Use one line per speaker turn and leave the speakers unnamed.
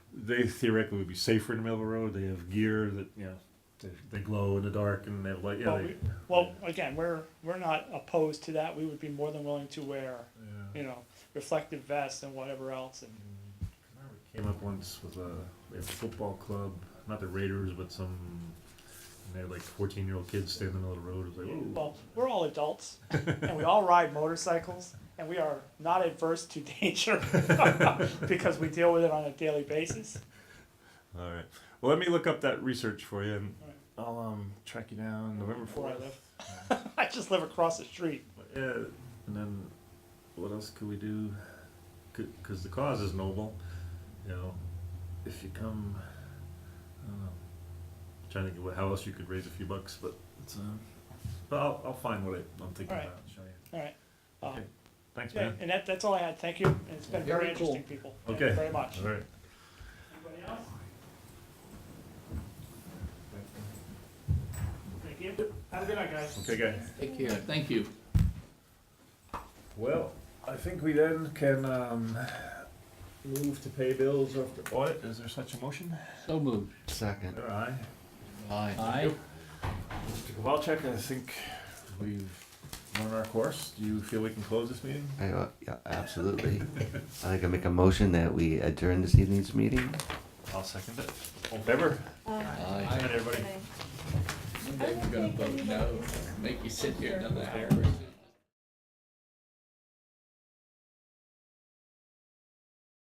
they theoretically would be safer in the middle of the road. They have gear that you know they, they glow in the dark and they have light. Yeah,
Well,
they,
we- Well, again, we're, we're not opposed to that, we would be more than willing to wear,
yeah.
you know, reflective vests and whatever else, and
I remember we came up once with a, we have a football club, not the Raiders, but some. And they had like 14 year old kids standing in the middle of the road. It was like,
Well, we're all adults, and we all ride motorcycles, and we are not adverse to danger because we deal with it on a daily basis.
whoa. All right. Well, let me look up that research for you and
All right.
I'll um, track you down November
Where I
4th.
live, I just live across the street.
Yeah, and then what else could we do? Because the cause is noble, you know. If you come, I don't know. Trying to think of what- how else you could raise a few bucks, but it's, um, but I'll, I'll find what I, I'm thinking
Alright.
about. and Show you.
All right. Uh,
Okay. Thanks,
yeah,
man.
and that, that's all I had. Thank you. And it's been very
Very cool.
interesting, people. Thank you
Okay.
very much.
All right.
Anybody else? Thank you. Have a good night, guys.
Okay, guys.
Take care, thank you.
Well, I think we then can um, move to pay bills after audit. Is there such a motion?
So moved.
Second.
All right.
Aye.
Mr. Kowalczyk, I think we've run our course. Do you feel we can close this meeting?
I, uh, yeah, absolutely. I can make a motion that we adjourn this evening's meeting.
I'll second it. All in favor?
Aye.
Good night, everybody.
Someday we're gonna vote no, make you sit here another hour.